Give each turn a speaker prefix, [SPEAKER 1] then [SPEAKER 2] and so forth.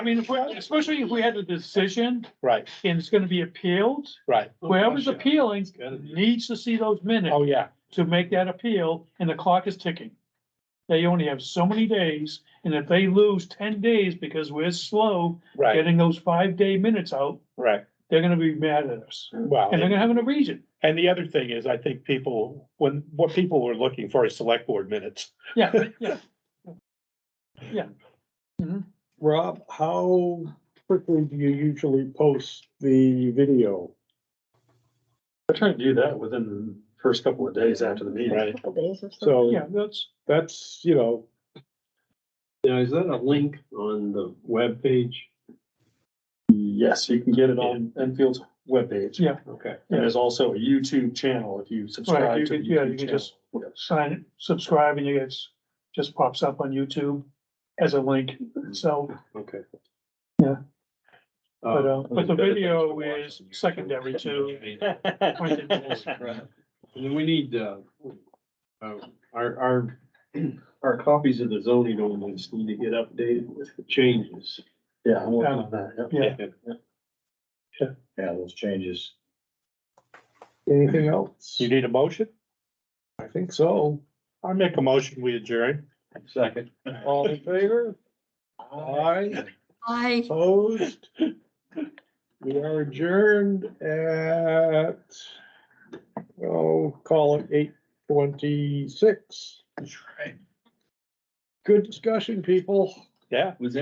[SPEAKER 1] I mean, if we, especially if we had a decision
[SPEAKER 2] Right,
[SPEAKER 1] and it's gonna be appealed,
[SPEAKER 2] right.
[SPEAKER 1] whoever's
[SPEAKER 3] gosh, yeah.
[SPEAKER 1] appealing
[SPEAKER 3] It's gotta be.
[SPEAKER 1] needs to see those minutes
[SPEAKER 2] Oh, yeah.
[SPEAKER 1] to make that appeal and the clock is ticking. They only have so many days and if they lose ten days because we're slow
[SPEAKER 2] Right,
[SPEAKER 1] getting those five day minutes out,
[SPEAKER 2] right.
[SPEAKER 1] they're gonna be mad at us.
[SPEAKER 2] Wow.
[SPEAKER 1] And they're gonna have a reason.
[SPEAKER 2] And the other thing is, I think people, when, what people were looking for is select board minutes.
[SPEAKER 1] Yeah, yeah.
[SPEAKER 4] Rob, how quickly do you usually post the video?
[SPEAKER 3] I try to do that within the first couple of days after the meeting.
[SPEAKER 2] Right.
[SPEAKER 5] Couple days or so.
[SPEAKER 4] So
[SPEAKER 1] Yeah, that's,
[SPEAKER 4] that's, you know,
[SPEAKER 6] Now, is that a link on the web page?
[SPEAKER 3] Yes, you can get it on Enfield's webpage.
[SPEAKER 1] Yeah.
[SPEAKER 6] Okay.
[SPEAKER 3] And there's also a YouTube channel if you
[SPEAKER 1] Right, you
[SPEAKER 3] subscribe to
[SPEAKER 1] could-
[SPEAKER 3] the
[SPEAKER 1] yeah, you
[SPEAKER 3] YouTube
[SPEAKER 1] could
[SPEAKER 3] channel.
[SPEAKER 1] just-
[SPEAKER 3] Yeah.
[SPEAKER 1] sign, it, subscribe and it gets, just pops up on YouTube as a link. So,
[SPEAKER 6] Okay.
[SPEAKER 1] Yeah. but, uh, but the video is secondary to appointed goals.
[SPEAKER 6] And then we need, uh, uh, our, our, our copies of the zoning ordinance need to get updated with the changes.
[SPEAKER 3] Yeah, I'm working on that. yeah.
[SPEAKER 1] Yeah.
[SPEAKER 7] Yeah, those changes.
[SPEAKER 4] anything else?
[SPEAKER 2] You need a motion?
[SPEAKER 4] I think so.
[SPEAKER 2] I make a motion, we adjourn.
[SPEAKER 6] Second.
[SPEAKER 4] All in favor? Aye,
[SPEAKER 5] I
[SPEAKER 4] opposed? We are adjourned at, oh, call it eight twenty-six. Good discussion, people.
[SPEAKER 2] Yeah.